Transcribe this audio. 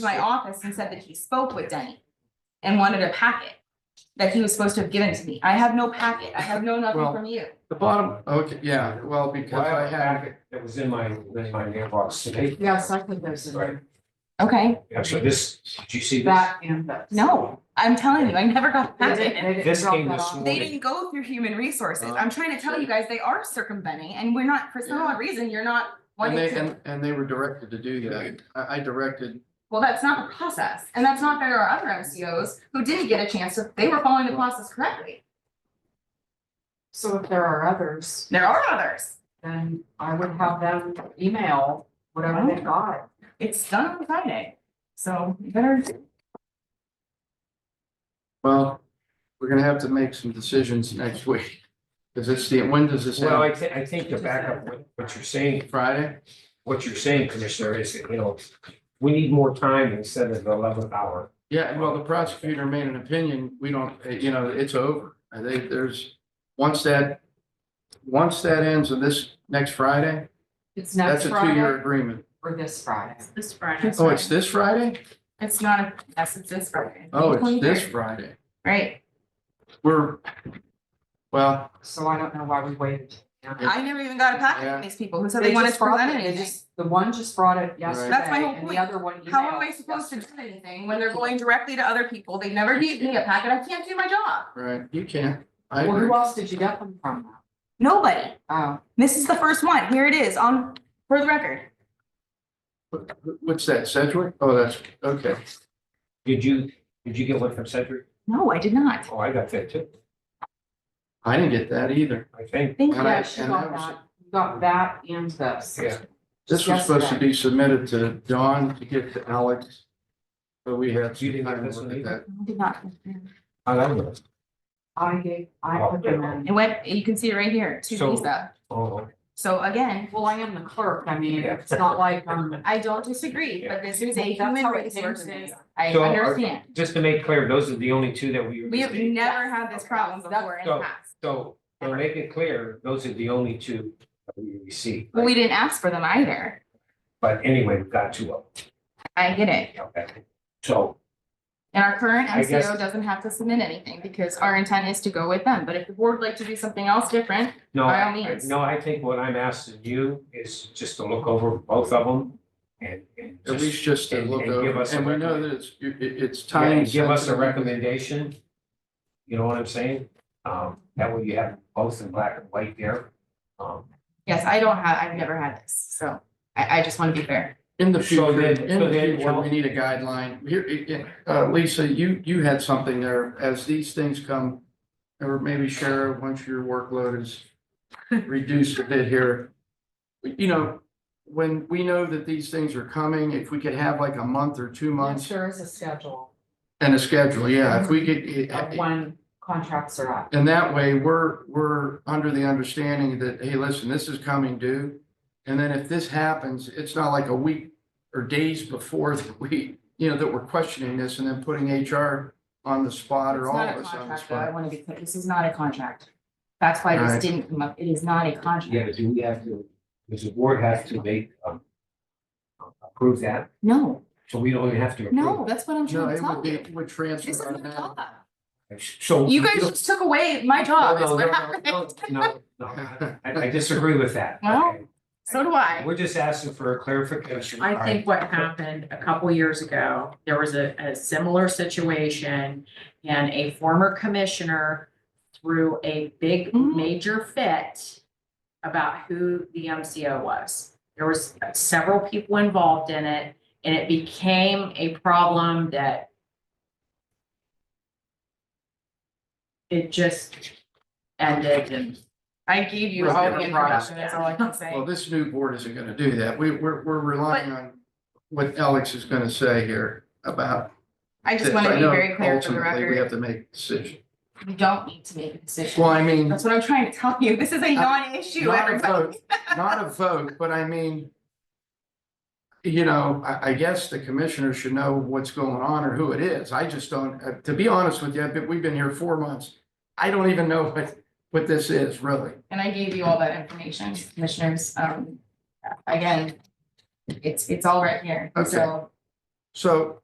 to my office and said that he spoke with Denny and wanted a packet that he was supposed to have given to me. I have no packet. I have no nothing Well- from you. The bottom, uh, okay, yeah, well, because I had, That was in my, in my mailbox today. Yes, I think there's Right. a, Okay, Yeah, so this, did you see this? that and that. no, I'm telling you, I never got a They didn't- packet. they didn't This drop came that this off. morning. They didn't go through human Uh-huh. resources. I'm trying to tell you guys, they are circumventing and we're not, for some odd reason, you're not and wanting they, to. and, and they were directed to do that. I, I directed, Well, that's not the process. And that's not fair to our other MCOs who didn't get a chance to, they were following the process correctly. So if there are others, There are others. then I would have them email whatever Oh. they got. It's done on Friday, so you better. well, we're gonna have to make some decisions next week. Cause it's the, when does this Well, end? I thi- I think to back up what, what you're saying, Friday? what you're saying, Commissioner, is, you know, we need more time instead of the eleventh hour. Yeah, well, the prosecutor made an opinion, we don't, eh, you know, it's over. I think there's, once that, once that ends of this next Friday, It's that's next a Friday two-year agreement. or this Friday. This Friday. Oh, it's this Friday? It's not, a yes, it's this Friday. Oh, it's this 23rd. Friday. Right, We're, well, So I don't know why we waited. I never even got a packet Yeah. from these people who said they wanted just to brought present it, they anything. just- The one just brought it yesterday That's my whole and the point. other one How am I emailed supposed to do yesterday. anything when they're going directly to other people? They never gave me a packet. I can't do my job. right, you can't. I Well, agree. who else did you get them from? Nobody. Oh, This is the first one. Here it is on, for the record. What- What's that, Sedgwick? Oh, that's, okay. Did you, did you get one from Cedric? No, I did not. Oh, I got that too, I didn't get that either. I think. Thank you. And I- yeah, she and got I was- that, you got that and this. Yeah. This was supposed to be submitted to Dawn to get to Alex. But we had. You didn't get this one either? I Did not. I don't know. I gave, I put them in. It went, you can see it right here, to So- Lisa. Oh, So again, Well, I am the clerk, I mean, it's not like, um, I don't disagree, but this is a That's how human it is. resources. I So are- understand. just to make clear, those are the only two that we. We have never had this problem That's- before in the so- past. So, to make it clear, those are the only two that we received. Well, we didn't ask for them either. But anyway, we've got two of I get it. them, okay? So, And our current I guess- MCO doesn't have to submit anything because our intent is to go with them. But if the board would like to do something else different, no, By all I- I, means. no, I think what I'm asking you is just to look over both of them and. and At just- least just to and- look and give over, us a and we know recommend- that it's, it- it's yeah, time. and Give us a sensitive. recommendation. You know what I'm saying? Um, that way you have both in black and white there. Um, yes, I don't have, I've never had this. So I, I just want to be fair. In the So future, then- in so the then, future, well- we need a guideline. Here, eh, eh, uh, Lisa, you, you had something there, as these things come, or maybe Shara, once your workload is reduced a bit here. You know, when we know that these things are coming, if we could have like a month or two months there is a schedule and a schedule, yeah, if we could. eh, of eh, when contracts are up. And that way, we're, we're under the understanding that, hey, listen, this is coming due. And then if this happens, it's not like a week or days before that we, you know, that we're questioning this and then putting HR on the spot It's or all not of a us on the contract, though. I spot. want to be clear. This is not a contract. That's why this Alright. didn't come up. It is not a yeah, contract. but do we have to, does the board have to make, um, approve that? No, So we don't even have to. approve no, that's what I'm trying to No, it would tell be, you. it would This is transfer. my job. automatic. So. You guys just took away my job. is No, what no, no, happened. no, No, no, I, I disagree with that. Well, Okay. So do I. We're just asking for a clarification. I think what happened a couple years ago, there was a, a similar situation and a former commissioner threw a big Mhm. major fit about who the MCO was. There was several people involved in it and it became a problem that it just ended and I gave you Was all never the brought up information. That's all I can say. Well, this new board isn't gonna do that. We, we're, we're relying on what Alex is gonna say here about. I just this. want to be know very clear for the ultimately We have record. to make a decision. You don't need to make a decision. Well, I mean. That's what I'm trying to tell you. This is a non-issue, Not a everybody. vote, Not a vote, but I mean. You know, I, I guess the commissioner should know what's going on or who it is. I just don't, uh, to be honest with you, I've been- we've been here four months. I don't even know what, what this is really. And I gave you all that information, commissioners. Um, again, it's, it's all right here. Okay. So So